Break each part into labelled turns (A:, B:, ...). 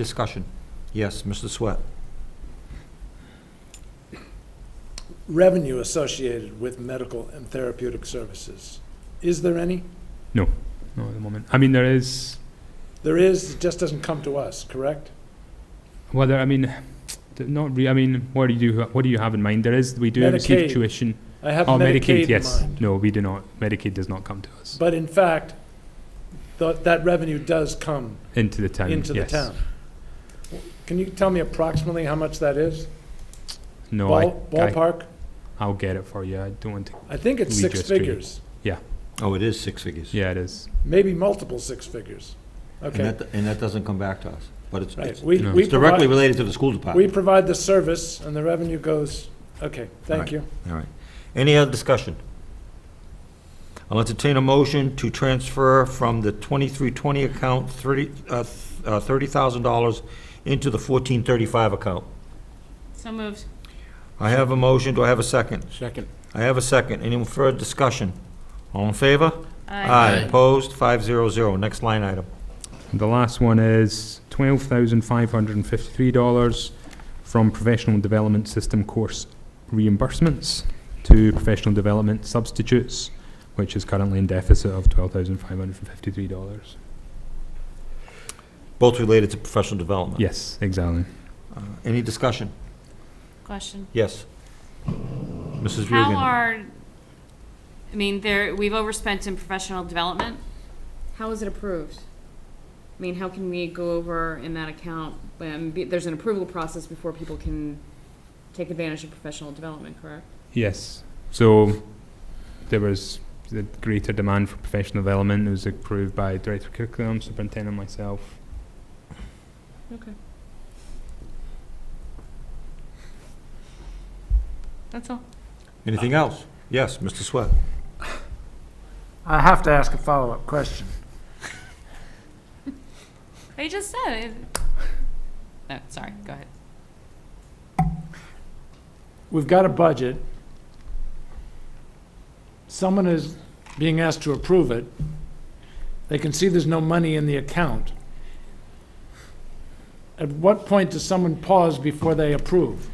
A: Discussion. Yes, Mr. Sweat.
B: revenue associated with medical and therapeutic services. Is there any?
C: No, at the moment. I mean, there is
B: There is, it just doesn't come to us, correct?
C: whether I mean, th- not re- I mean, what do you what do you have in mind? There is we do
B: Medicaid.
C: receive tuition.
B: I have
C: oh, Medicaid,
B: Medicaid in
C: yes.
B: mind.
C: No, we do not. Medicaid does not come to us
B: But in fact, tho- that revenue does come
C: into the town.
B: into the
C: yes.
B: town. Can you tell me approximately how much that is?
C: No,
B: Ball-
C: I, I
B: Ballpark?
C: I'll get it for you. I don't want to.
B: I think it's
C: Lead you
B: six
C: astray.
B: figures,
A: Oh, it is six figures.
C: Yeah, it is.
B: maybe multiple six figures.
A: And
B: Okay,
A: that, and that doesn't come back to us, but it's,
B: right.
A: it's
B: We,
C: No.
B: we
A: it's directly
B: provide,
A: related to the school
B: we
A: department.
B: provide the service and the revenue goes, okay,
A: Right.
B: thank you.
A: All right. Any other discussion? I'll entertain a motion to transfer from the 2320 account 30, uh, th- uh, $30,000 into the 1435 account.
D: So moved.
A: I have a motion. Do I have a second?
E: Second.
A: I have a second. Any further discussion? All in favor?
D: Aye.
A: Opposed? 500. Next line item.
C: The last one is twelve thousand five hundred and fifty-three dollars from professional development system course reimbursements to professional development substitutes, which is currently in deficit of twelve thousand five hundred and fifty-three dollars.
A: Both related to professional development.
C: Yes, exactly.
A: Uh, Any discussion?
D: Question.
A: Yes. Mrs.
D: How
A: Bugan.
D: are, I mean, there, we've overspent in professional development. How is it approved? I mean, how can we go over in that account, um, be- there's an approval process before people can take advantage of professional development, correct?
C: Yes. So there was a greater demand for professional development. It was approved by Director of Curriculum, Superintendent, myself.
D: That's all.
A: Anything else? Yes, Mr. Sweat.
E: I have to ask a follow-up question.
D: I just said it. No, sorry, go ahead.
E: We've got a budget. Someone is being asked to approve it. They can see there's no money in the account. At what point does someone pause before they approve?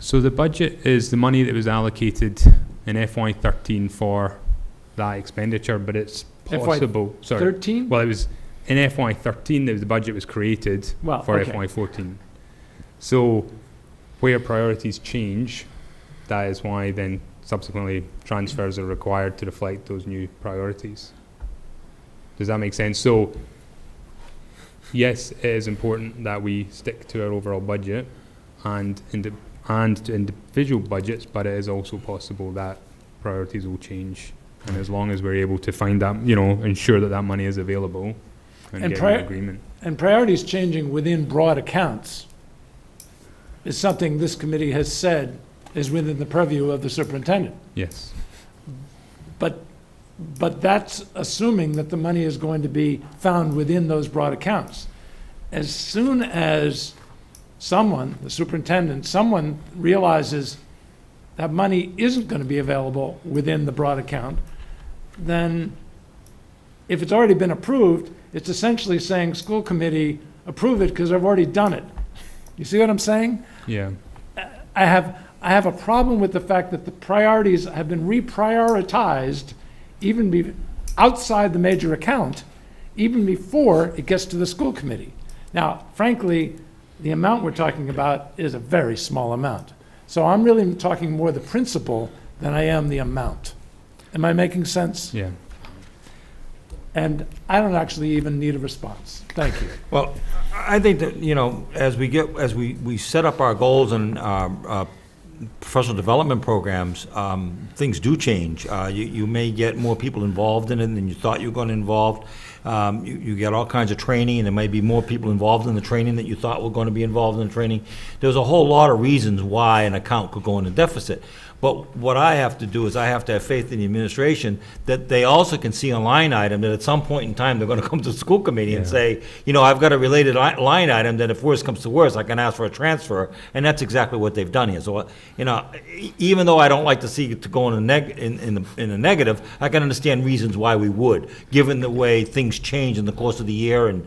C: So the budget is the money that was allocated in FY13 for that expenditure, but it's
E: FY
C: possible. sorry.
E: 13?
C: Well, it was in FY13 that the budget was created
E: Well,
C: for
E: okay.
C: FY14. So where priorities change, that is why then subsequently transfers are required to reflect those new priorities. Does that make sense? So yes, it is important that we stick to our overall budget and indi- and to individual budgets, but it is also possible that priorities will change. And as long as we're able to find that, you know, ensure that that money is available and,
E: And
C: get
E: prior-
C: an agreement.
E: And priorities changing within broad accounts is something this committee has said is within the purview of the superintendent.
C: Yes.
E: But, but that's assuming that the money is going to be found within those broad accounts. As soon as someone, the superintendent, someone realizes that money isn't going to be available within the broad account, then if it's already been approved, it's essentially saying, school committee, approve it because I've already done it. You see what I'm saying?
C: Yeah.
E: I have, I have a problem with the fact that the priorities have been reprioritized even be, outside the major account, even before it gets to the school committee. Now, frankly, the amount we're talking about is a very small amount. So I'm really talking more the principle than I am the amount. Am I making sense?
C: Yeah.
E: And I don't actually even need a response. Thank you.
A: Well, I I think that, you know, as we get, as we, we set up our goals and um, uh, professional development programs, um, things do change. Uh, You, you may get more people involved in it than you thought you were going to involve. Um, You, you get all kinds of training, and there may be more people involved in the training that you thought were going to be involved in the training. There's a whole lot of reasons why an account could go into deficit. But what I have to do is I have to have faith in the administration that they also can see a line item that at some point in time, they're going to come to the school committee and
C: Yeah.
A: say, say, you know, I've got a related li- line item that if worse comes to worse, I can ask for a transfer, and that's exactly what they've done here. So, uh, you know, e- even though I don't like to see it to go in a neg, in, in the, in a negative, I can understand reasons why we would, given the way things change in the course of the year and